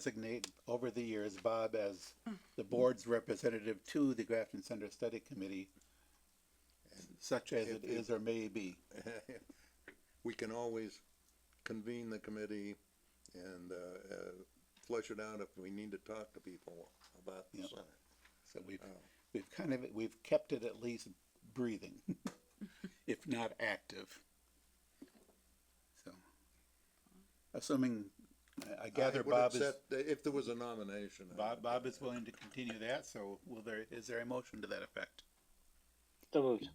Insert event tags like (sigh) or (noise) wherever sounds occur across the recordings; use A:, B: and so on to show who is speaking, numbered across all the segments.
A: designate over the years Bob as the board's representative to the Grafton Center Study Committee, such as it is or may be.
B: (laughs) we can always convene the committee and, uh, uh, flesh it out if we need to talk to people about Oh, the
A: Yep.
B: center.
A: So we've, we've kind of, we've kept it at least breathing, (laughs) if not active. So, assuming, I- I gather
B: I would
A: Bob is,
B: accept If there was a nomination. I
A: Bob,
B: would-
A: Bob is willing to continue that, so will there, is there a motion to that effect?
C: So moved.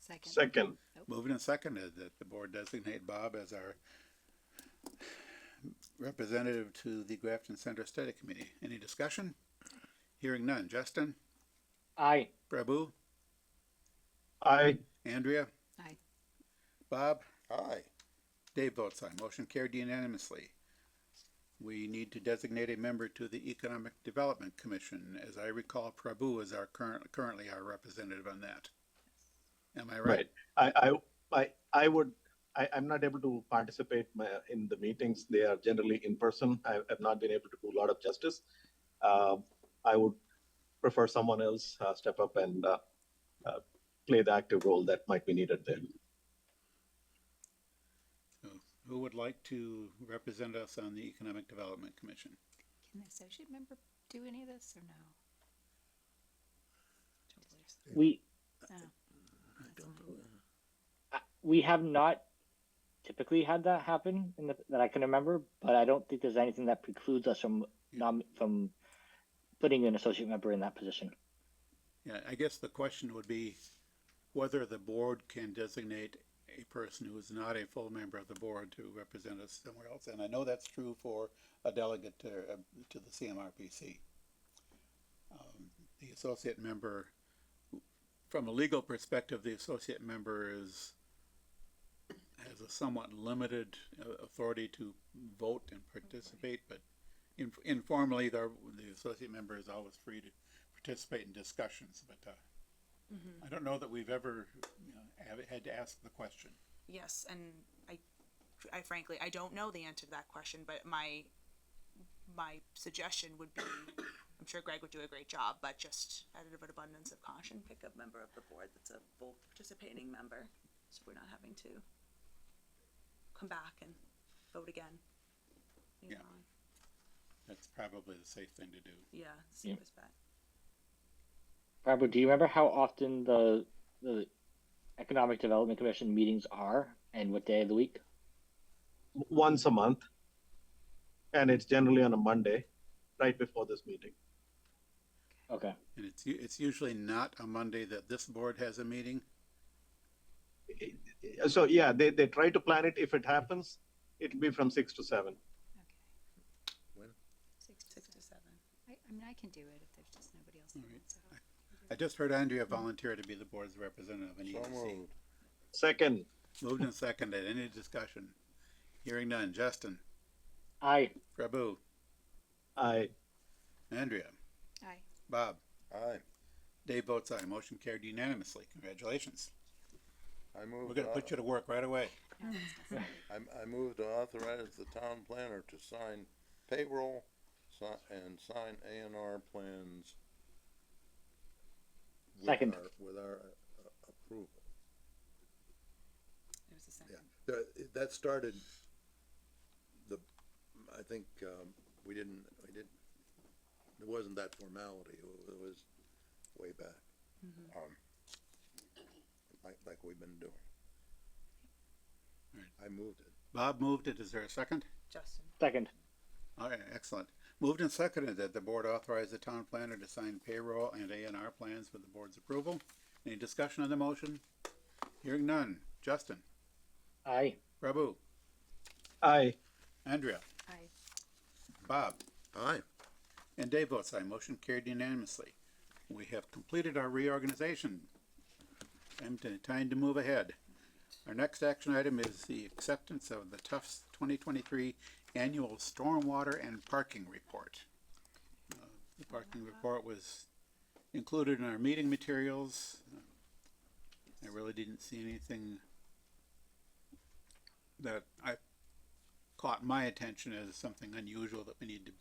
D: Second.
E: Second,
A: Moving and seconded that the board designate Bob as our representative to the Grafton Center Study Committee. Any discussion? Hearing none. Justin,
C: Aye.
A: Prabu,
E: aye,
A: Andrea?
D: Aye.
A: Bob?
B: Aye,
A: Dave votes aye. Motion carried unanimously. We need to designate a member to the Economic Development Commission. As I recall, Prabu is our current, currently our representative on that. Am I right?
E: right. I, I, I, I would, I, I'm not able to participate my- in the meetings. They are generally in person. I have not been able to do a lot of justice. Uh, I would prefer someone else uh, step up and uh, uh, play the active role that might be needed there.
A: Who would like to represent us on the Economic Development Commission?
D: Can the associate member do any of this or no? Don't believe so.
C: We,
D: No. That's fine.
C: we have not typically had that happen in the, that I can remember, but I don't think there's anything that precludes us from nom, from putting an associate member in that position.
A: Yeah, I guess the question would be whether the board can designate a person who is not a full member of the board to represent us somewhere else. And I know that's true for a delegate to, uh, to the CMRPC. Um, The associate member, from a legal perspective, the associate member is, has a somewhat limited uh, authority to vote and participate, but in- informally, the, the associate member is always free to participate in discussions, but uh, I don't know that we've ever you know, have- had to ask the question.
F: Yes, and I, I frankly, I don't know the answer to that question, but my, my suggestion would be, (coughs) I'm sure Greg would do a great job, but just out of an abundance of caution,
G: pick a member of the board that's a full participating member, so we're not having to
F: come back and vote again. You
A: Yeah.
F: know,
A: That's probably the safe thing to do.
F: Yeah, it's
C: Yeah.
F: the best bet.
C: Robert, do you remember how often the the Economic Development Commission meetings are and what day of the week?
E: Once a month. And it's generally on a Monday, right before this meeting.
C: Okay.
A: And it's, u- it's usually not a Monday that this board has a meeting.
E: So, yeah, they, they try to plan it. If it happens, it'll be from six to seven.
D: Oh, Okay.
B: When?
D: Six to
F: Six to
D: seven.
F: seven.
D: I, I mean, I can do it if there's just nobody else. that
A: All right.
D: wants it.
A: I just heard Andrea volunteer to be the board's representative in
B: so
A: EDC.
B: moved.
E: Second,
A: Moved and seconded. Any discussion? Hearing none. Justin,
C: Aye.
A: Prabu,
E: I,
A: Andrea,
D: Aye.
A: Bob,
B: Aye,
A: Dave votes aye. Motion carried unanimously. Congratulations.
B: I
A: We're
B: moved,
A: gonna put you to work right away.
D: No, that's not something.
B: au- I, I moved to authorize the town planner to sign payroll si- and sign A and R plans. with
C: Second.
B: our- With our uh, approval.
F: It was the second.
B: Yeah, there, that started, the, I think, um, we didn't, we didn't, it wasn't that formality, it wa- it was way back. Um, Like, like we've been doing.
A: Alright.
B: I moved it.
A: Bob moved it. Is there a second?
F: Justin,
C: Second.
A: All right, excellent. Moved and seconded that the board authorize the town planner to sign payroll and A and R plans with the board's approval. Any discussion on the motion? Hearing none. Justin,
C: Aye.
A: Prabu,
E: I,
A: Andrea,
D: Aye.
A: Bob,
B: Aye.
A: and Dave votes aye. Motion carried unanimously. We have completed our reorganization. Time to, time to move ahead. Our next action item is the acceptance of the Tufts twenty twenty-three annual stormwater and parking report. Uh, The parking report was included in our meeting materials. I really didn't see anything that I caught my attention as something unusual that we need to